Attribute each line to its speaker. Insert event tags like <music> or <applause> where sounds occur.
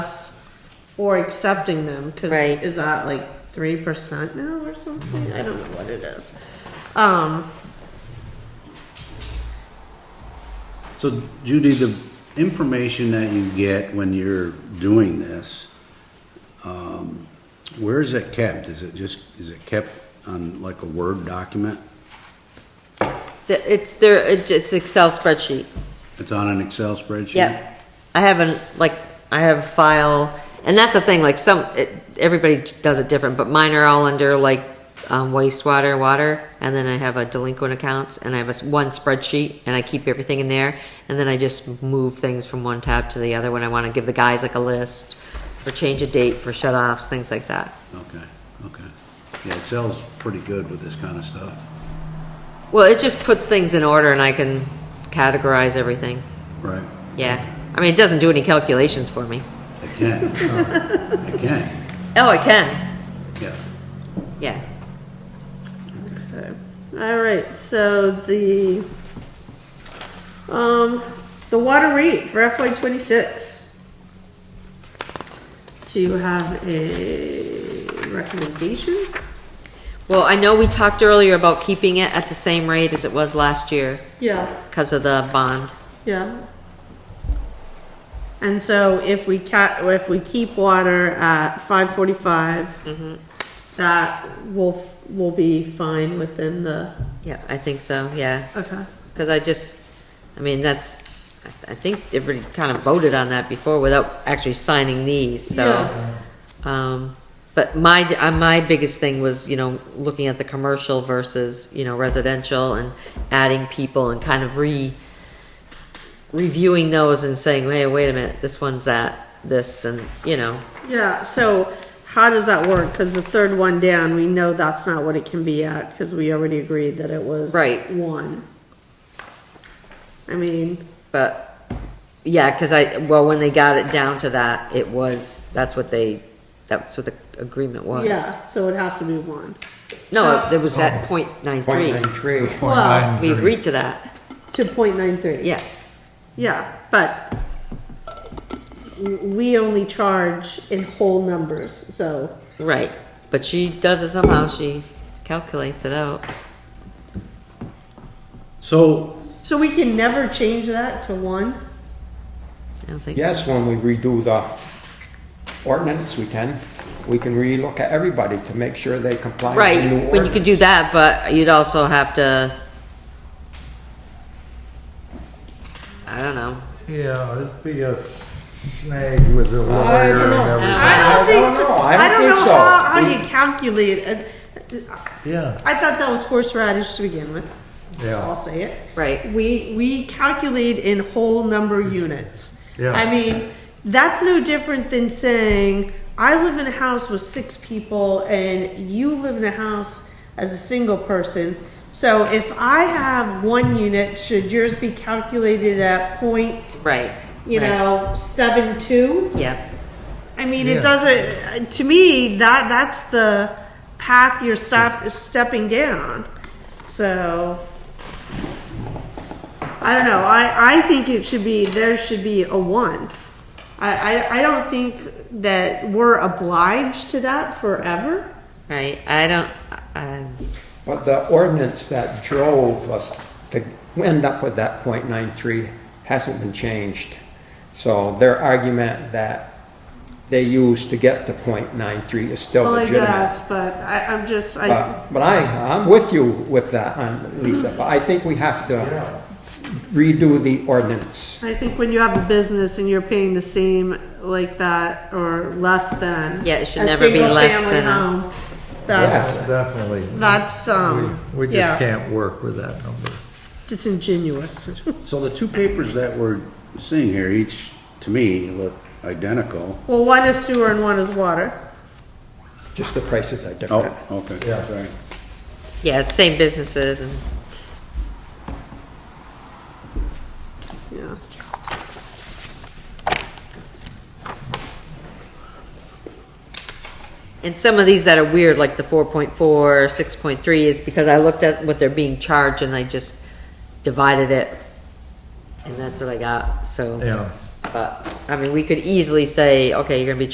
Speaker 1: or accepting them, cause
Speaker 2: Right.
Speaker 1: is that like three percent now or something? I don't know what it is. Um,
Speaker 3: So Judy, the information that you get when you're doing this, um, where is it kept? Is it just, is it kept on like a Word document?
Speaker 2: The- It's there, it's just Excel spreadsheet.
Speaker 3: It's on an Excel spreadsheet?
Speaker 2: Yep. I haven't, like, I have a file, and that's the thing, like, some, it, everybody does it different, but mine are all under, like, um, wastewater, water, and then I have a delinquent accounts, and I have a, s- one spreadsheet, and I keep everything in there, and then I just move things from one tab to the other when I wanna give the guys like a list, for change of date, for shut-offs, things like that.
Speaker 3: Okay, okay. Yeah, Excel's pretty good with this kind of stuff.
Speaker 2: Well, it just puts things in order, and I can categorize everything,
Speaker 3: Right.
Speaker 2: yeah. I mean, it doesn't do any calculations for me.
Speaker 3: I can. I can,
Speaker 2: Oh, I can,
Speaker 3: yeah.
Speaker 2: yeah.
Speaker 1: okay. all right, so the, um, the water rate for FY twenty-six. Do you have a recommendation?
Speaker 2: Well, I know we talked earlier about keeping it at the same rate as it was last year
Speaker 1: Yeah.
Speaker 2: because of the bond.
Speaker 1: Yeah. And so if we ca- if we keep water at five that will, will be fine within the,
Speaker 2: Yeah, I think so, yeah.
Speaker 1: okay.
Speaker 2: Because I just, I mean, that's, I- I think everybody kind of voted on that before without actually signing these, so. Um, but my, uh, my biggest thing was, you know, looking at the commercial versus, you know, residential and adding people and kind of re, reviewing those and saying, hey, wait a minute, this one's at this and, you know,
Speaker 1: Yeah, so how does that work? Cause the third one down, we know that's not what it can be at, cause we already agreed that it was.
Speaker 2: Right.
Speaker 1: One. I mean,
Speaker 2: But, yeah, because I, well, when they got it down to that, it was, that's what they, that's what the agreement was.
Speaker 1: yeah, so it has to be one.
Speaker 2: No, it was at point nine three.
Speaker 4: three.
Speaker 1: Well-
Speaker 2: We agreed to that,
Speaker 1: To point nine three.
Speaker 2: yeah.
Speaker 1: Yeah, but w- we only charge in whole numbers, so,
Speaker 2: Right, but she does it somehow, she calculates it out.
Speaker 3: So,
Speaker 1: so we can never change that to one?
Speaker 2: I don't think so.
Speaker 4: Yes, when we redo the ordinance, we can, we can relook at everybody to make sure they comply with the new
Speaker 2: Right, when you could do that,
Speaker 4: ordinance.
Speaker 2: but you'd also have to, I don't know.
Speaker 5: Yeah, it'd be a snag with the
Speaker 4: I
Speaker 5: lawyer
Speaker 4: don't
Speaker 5: and
Speaker 4: know.
Speaker 5: everything.
Speaker 1: I don't think so.
Speaker 4: know. I don't think
Speaker 1: know
Speaker 4: so.
Speaker 1: how, how you calculate, it.
Speaker 5: Yeah,
Speaker 1: I thought that was horseradish to begin with, I'll
Speaker 5: yeah.
Speaker 1: say it.
Speaker 2: Right,
Speaker 1: We, we calculate in whole number units.
Speaker 5: Yeah.
Speaker 1: I mean, that's no different than saying, I live in a house with six people and you live in a house as a single person. So if I have one unit, should yours be calculated at point,
Speaker 2: right.
Speaker 1: you
Speaker 2: right.
Speaker 1: know, seven two?
Speaker 2: Yeah,
Speaker 1: I mean,
Speaker 5: Yeah.
Speaker 1: it doesn't, to me, that, that's the path you're stop, stepping down. So, I don't know, I, I think it should be, there should be a one. I, I, I don't think that we're obliged to that forever.
Speaker 2: right, I don't, um,
Speaker 4: But the ordinance that drove us to end up with that .93 hasn't been changed. So their argument that they used to get to .93 is still
Speaker 1: Well, I
Speaker 4: legitimate.
Speaker 1: guess, but I, I'm just, Oh, I,
Speaker 4: But but I, I'm with you with that, on Lisa, but I think we have to redo the ordinance.
Speaker 1: I think when you have a business and you're paying the same like that or less than.
Speaker 2: Yeah, it should
Speaker 1: a
Speaker 2: never be less
Speaker 1: single-family
Speaker 2: than a-
Speaker 1: home, That's,
Speaker 5: Definitely.
Speaker 1: that's, um,
Speaker 5: We
Speaker 1: yeah.
Speaker 5: just can't work with that number.
Speaker 1: disingenuous. <laughs>
Speaker 3: so the two papers that we're seeing here, each, to me, look identical.
Speaker 1: Well, one is sewer and one is water.
Speaker 4: Just the prices are different.
Speaker 3: Oh, okay,
Speaker 5: Yeah.
Speaker 3: sorry.
Speaker 2: yeah, it's same businesses and.
Speaker 1: Yeah.
Speaker 2: And some of these that are weird, like the 4.4, 6.3, is because I looked at what they're being charged and I just divided it. And that's what I got, so.
Speaker 5: Yeah.
Speaker 2: But, I mean, we could easily say, okay, you're gonna be